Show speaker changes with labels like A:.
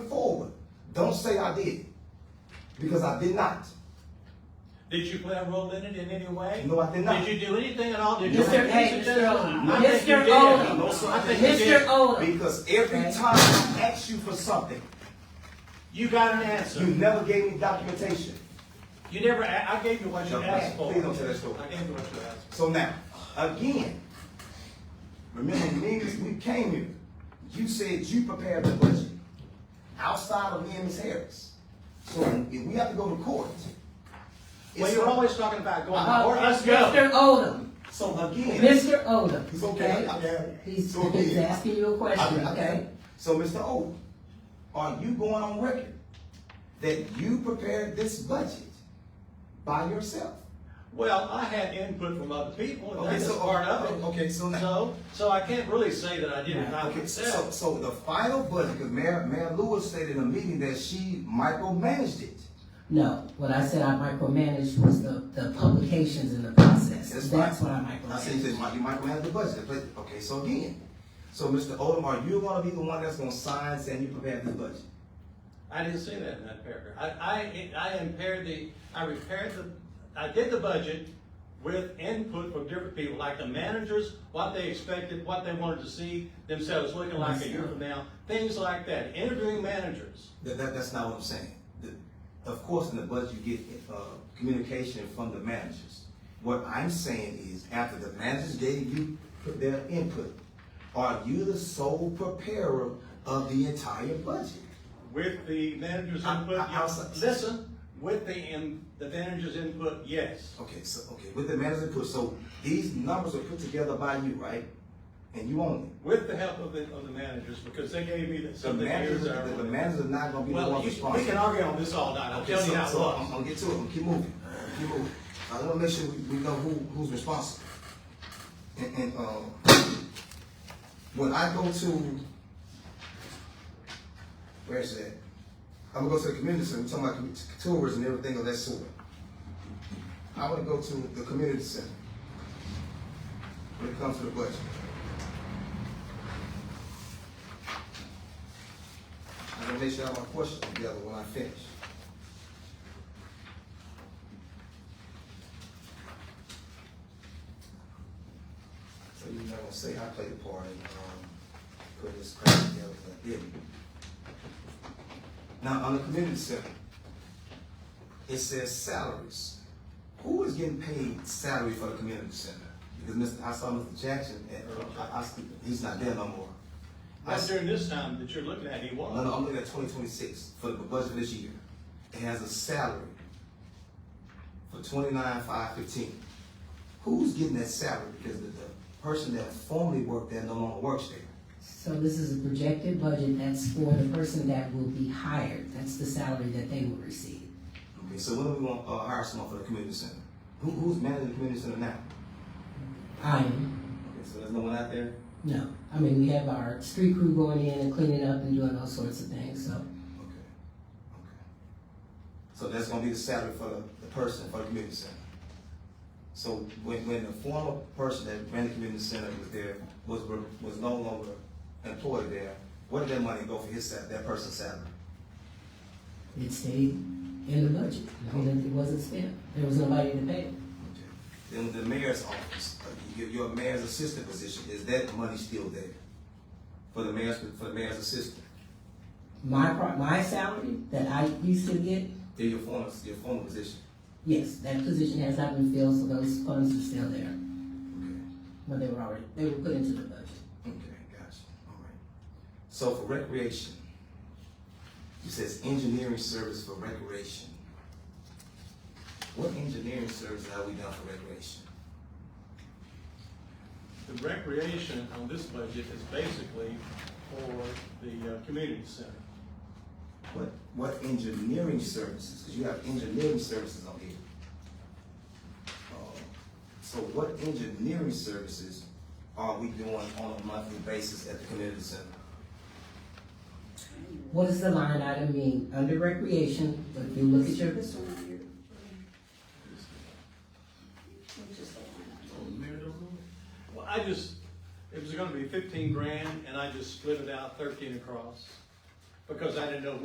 A: Don't say I did, because I did not.
B: Did you play a role in it in any way?
A: No, I did not.
B: Did you do anything at all? Did you?
C: Mr. Hey,
B: Mr.
C: Mr. Oldham.
B: I think you
C: Mr.
B: did.
C: Oldham.
B: No, sir, I think you
C: Mr.
B: did.
C: Oldham.
A: Because every
C: Okay.
A: time I asked you for something,
B: You got an answer.
A: you never gave me documentation.
B: You never, a- I gave you what you
A: No,
B: asked for.
A: please don't tell that story.
B: I gave you what you asked
A: So now, again, remember me, and Ms. we came here, you said you prepared the budget outside of me and Ms. Harris. So if we have to go to court.
B: for. Well,
A: it's-
B: you're always talking about going,
C: Uh,
B: or us go.
C: Mr. Oldham.
A: So again,
C: Mr. Oldham.
A: It's okay.
C: He's,
A: So
C: he's
A: again.
C: asking you a
A: I-
C: question,
A: I-
C: okay?
A: So Mr. O, are you going on record that you prepared this budget by yourself?
B: Well, I had input from other people, and
A: Okay,
B: that's
A: so-
B: part of it.
A: okay, so now-
B: So, so I can't really say that I did it by
A: Okay, so,
B: myself.
A: so the final budget, because Mayor, Mayor Lewis said in a meeting that she micromanaged it.
C: No, what I said I micromanaged was the, the publications and the process.
A: That's
C: That's what I
A: I said, you
C: micromanaged.
A: said, Mike, you micromanage the budget, but, okay, so again, so Mr. Odom, are you gonna be the one that's gonna sign saying you prepared this budget?
B: I didn't say that in that paragraph. I, I, I impaired the, I repaired the, I did the budget with input from different people, like the managers, what they expected, what they wanted to see themselves looking like a year from now, things like that, interviewing managers.
A: That, that, that's not what I'm saying. The- Of course, in the budget, you get, uh, communication from the managers. What I'm saying is, after the managers gave you their input, are you the sole preparer of the entire budget?
B: With the manager's
A: I-
B: input,
A: I- I'll
B: yes.
A: s-
B: Listen, with the, in- the manager's input, yes.
A: Okay, so, okay, with the managers input, so these numbers are put together by you, right? And you own them.
B: With the help of the, of the managers, because they gave me
A: The
B: some of the
A: managers,
B: years.
A: the
B: I
A: the
B: remember.
A: managers are not gonna be the
B: Well,
A: ones
B: you- we
A: responsible.
B: can argue on this all night, I'm
A: Okay,
B: telling
A: so,
B: you how it
A: so I'm
B: was.
A: gonna get to it. I'm gonna keep moving. Keep moving. I wanna make sure we, we know who, who's responsible. And, and uh, when I go to, where is that? I'm gonna go to the community center. We're talking about commu- tourism and everything of that sort. I wanna go to the community center when it comes to the budget. I wanna make sure I have my questions together when I finish. So you're not gonna say I played a part in, um, putting this crap together, but I didn't. Now, on the community center, it says salaries. Who is getting paid salary for the community center? Because Mr., I saw Mr. Jackson, at- I, I, he's not there no more. I
B: Not
A: s-
B: during this time that you're looking at, he was.
A: no, no, I'm looking at twenty twenty-six for the budget for this year. It has a salary for twenty-nine, five fifteen. Who's getting that salary? Because the, the person that formerly worked there no longer works there.
C: So this is a projected budget that's for the person that will be hired. That's the salary that they will receive.
A: Okay, so when are we gonna, uh, hire someone for the community center? Who, who's managing the community center now?
C: I am.
A: Okay, so there's no one out there?
C: No, I mean, we have our street crew going in and cleaning up and doing all sorts of things, so.
A: Okay, okay. So that's gonna be the salary for the, the person, for the community center. So when, when the former person that ran the community center was there, was, was no longer employed there, where did that money go for his sal, that person's salary?
C: It stayed in the budget. I mean, it wasn't spent. There was nobody to pay. it.
A: Okay. Then the mayor's office, uh, your, your mayor's assistant position, is that money still there? For the mayor's, for the mayor's assistant?
C: My, pro- my salary that I used to get,
A: Yeah, your former, your former position?
C: yes, that position has not been filled, so those funds are still there.
A: Okay.
C: But they were already, they were put into the budget.
A: Okay, gotcha, all right. So for recreation, it says engineering service for recreation. What engineering service have we done for recreation?
B: The recreation on this budget is basically for the uh, community center.
A: What, what engineering services, because you have engineering services on here. Uh, So what engineering services are we doing on a monthly basis at the community center?
C: What does the line item mean? Under recreation, if you look at your,
D: This one here. Which is the one.
B: Well, I just, it was gonna be fifteen grand, and I just split it out thirteen across, because I didn't know